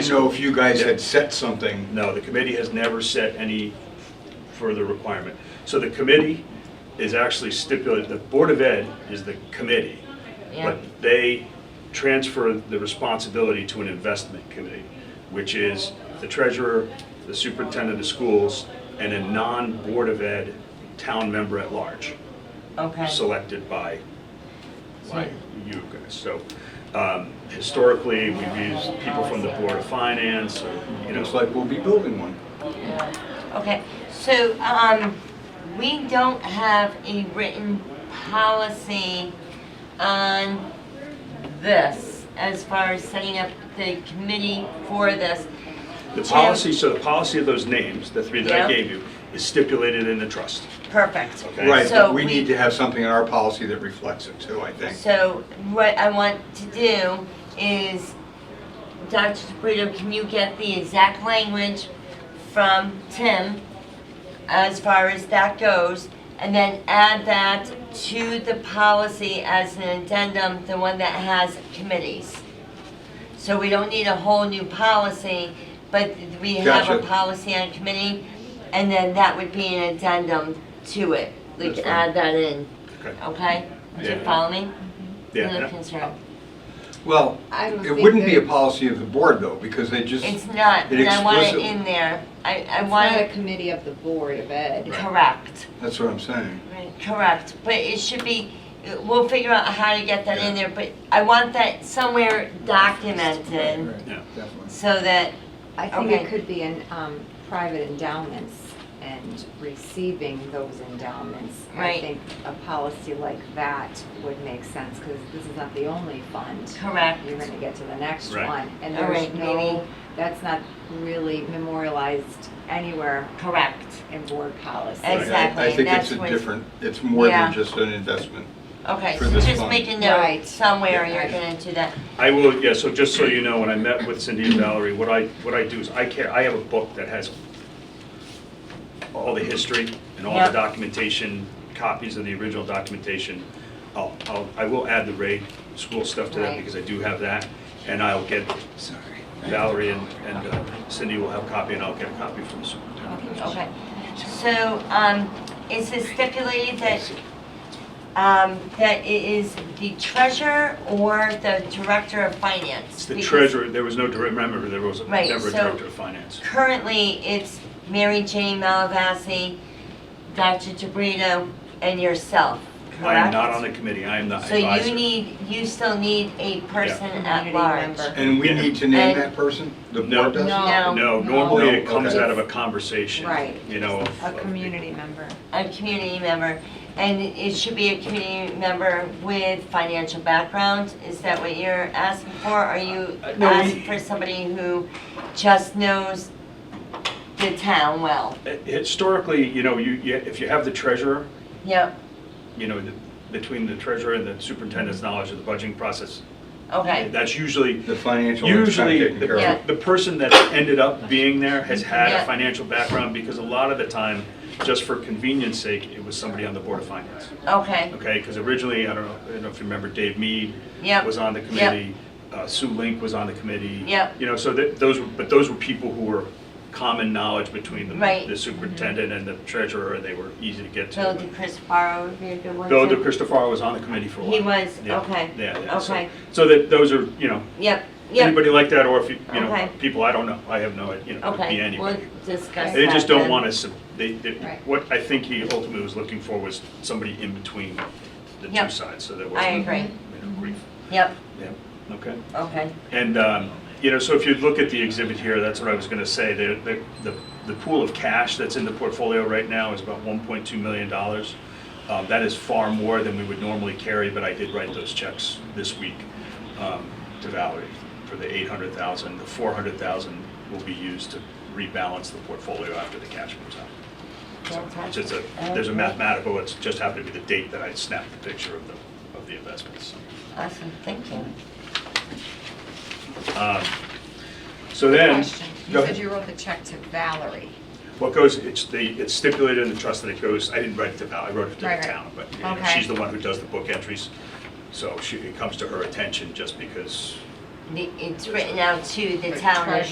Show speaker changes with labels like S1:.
S1: didn't know if you guys had set something.
S2: No, the committee has never set any further requirement. So the committee is actually stipulated, the Board of Ed is the committee,
S3: Yeah.
S2: but they transfer the responsibility to an investment committee, which is the treasurer, the superintendent of schools, and a non-Board of Ed town member at large,
S3: Okay.
S2: selected by like you guys. So um, historically, we've used people from the Board of Finance, or, you know.
S1: It's like, we'll be building one.
S3: Okay, so, um, we don't have a written policy on this as far as setting up the committee for this.
S2: The policy, so the policy of those names, the three that I
S3: Yeah.
S2: gave you, is stipulated in the trust.
S3: Perfect.
S2: Okay.
S1: Right,
S3: So
S1: but we need to have something in our policy that reflects it too, I think.
S3: So what I want to do is, Dr. DeBrito, can you get the exact language from Tim as far as that goes? And then add that to the policy as an addendum, the one that has committees. So we don't need a whole new policy, but we have a
S1: Gotcha.
S3: policy on committee, and then that would be an addendum to it. We
S1: That's
S3: can
S1: fine.
S3: add that in,
S2: Okay.
S3: okay? Do you
S2: Yeah.
S3: follow me?
S2: Yeah,
S3: Another
S2: and
S3: concern.
S1: Well,
S4: I don't
S1: it
S4: think
S1: wouldn't be
S4: that-
S1: a policy of the board though, because they just,
S3: It's not,
S1: It
S3: and I want it
S1: explicitly-
S3: in there. I, I
S4: It's
S3: want
S4: not a
S3: it,
S4: committee of the Board of Ed.
S3: correct,
S1: that's what I'm saying.
S3: correct. But it should be, we'll figure out how to get that in there, but I want that somewhere documented
S1: Right,
S2: Yeah.
S1: Definitely.
S3: so that,
S4: I think
S3: Okay.
S4: it could be in um, private endowments and receiving those endowments. I
S3: Right.
S4: think a policy like that would make sense, because this is not the only fund.
S3: correct.
S4: You're gonna get to the next
S2: Right.
S4: one. And
S3: All
S4: there's
S3: right, maybe.
S4: no, that's not really memorialized anywhere
S3: Correct,
S4: in board policy.
S1: Right, I-
S3: Exactly,
S1: I think
S3: that's
S1: it's a
S3: what-
S1: different, it's more than
S3: Yeah.
S1: just an investment.
S3: okay,
S1: For
S3: so
S1: this
S3: just
S1: one.
S3: make a
S4: Right.
S3: note somewhere
S4: Yeah.
S3: you're gonna do that.
S2: I will, yeah, so just so you know, when I met with Cindy and Valerie, what I, what I do is I care, I have a book that has all the history and all
S3: Yeah.
S2: the documentation, copies of the original documentation. I'll, I'll, I will add the raid school stuff to that
S4: Right.
S2: because I do have that. And I'll get,
S1: Sorry.
S2: Valerie and and uh, Cindy will have a copy and I'll get a copy from the superintendent.
S3: Okay, so, um, is it stipulated that, um, that it is the treasurer or the director of finance?
S2: It's the
S3: Because
S2: treasurer, there was no, direct- remember, there was a-
S3: Right,
S2: never a
S3: so-
S2: director of finance.
S3: Currently, it's Mary Jane Malavasi, Dr. DeBrito, and yourself, correct?
S2: I am not on the committee, I am the
S3: So
S2: advisor.
S3: you need, you still need a person at
S4: Community
S3: large.
S4: member.
S1: And we
S2: Yeah.
S1: need to name
S3: And-
S1: that person? The
S2: No.
S1: board does?
S4: No.
S2: No, normally it
S1: No,
S2: comes
S1: okay.
S2: out of a conversation.
S4: Right.
S2: You know. of-
S4: A
S2: of-
S4: community member.
S3: A community member, and it should be a community member with financial background, is that what you're asking for? Are you
S2: Uh, no, we-
S3: asking for somebody who just knows the town well?
S2: Historically, you know, you, you- if you have the treasurer,
S3: Yep,
S2: you know, the- between the treasurer and the superintendent's knowledge of the budgeting process,
S3: okay,
S2: that's usually,
S1: The financial. one's kinda
S2: usually,
S1: taken care of.
S3: Yeah.
S2: the the person that ended up being there has had
S3: Yeah.
S2: a financial background, because a lot of the time, just for convenience sake, it was somebody on the Board of Finance.
S3: okay,
S2: okay? Because originally, I don't know, I don't know if you remember, Dave Mead
S3: Yep.
S2: was on the committee, uh, Sue Link was on the committee.
S3: Yep.
S2: You know, so that, those, were- but those were people who were common knowledge between the
S3: Right.
S2: the superintendent and the treasurer, and they were easy to get
S3: Bill
S2: to.
S3: DeCristofaro would be a good one
S2: Bill
S3: too.
S2: DeCristofaro was on the committee for a while.
S3: He was,
S2: Yeah,
S3: okay,
S2: Yeah, yeah. so-
S3: okay.
S2: So that, those are, you know,
S3: Yep, yep.
S2: anybody like that, or if, you you
S3: Okay.
S2: know, people I don't know, I have no, idea, you know, it could be
S3: Okay, we'll
S2: anybody.
S3: discuss
S2: They just
S3: that
S2: don't
S3: then.
S2: want to, they, they-
S4: Right.
S2: what I think he ultimately was looking for was somebody in between the two
S3: Yep.
S2: sides, so there
S3: I
S2: wasn't,
S3: agree.
S2: you know, grief.
S3: Yep,
S2: Yeah, okay.
S3: okay,
S2: And, um, you know, so if you look at the exhibit here, that's what I was going to say. The- The the the pool of cash that's in the portfolio right now is about $1.2 million. Um, That is far more than we would normally carry, but I did write those checks this week um, to Valerie for the 800,000. The 400,000 will be used to rebalance the portfolio after the cash moves out. It's just a, there's a mathematical, it's just happened to be the date that I snapped the picture of the, of the investments.
S3: awesome, thank you.
S2: Um, So then,
S5: Question.
S2: Go
S5: You
S2: ahead.
S5: said you wrote the check to Valerie.
S2: what goes, it's the, it's stipulated in the trust that it goes, I didn't write it to Val, I wrote it to the
S5: Right, right.
S2: town, but you know,
S5: Okay.
S2: she's the one who does the book entries. So she, it comes to her attention just because
S3: The- It's written out to the
S5: The
S3: town as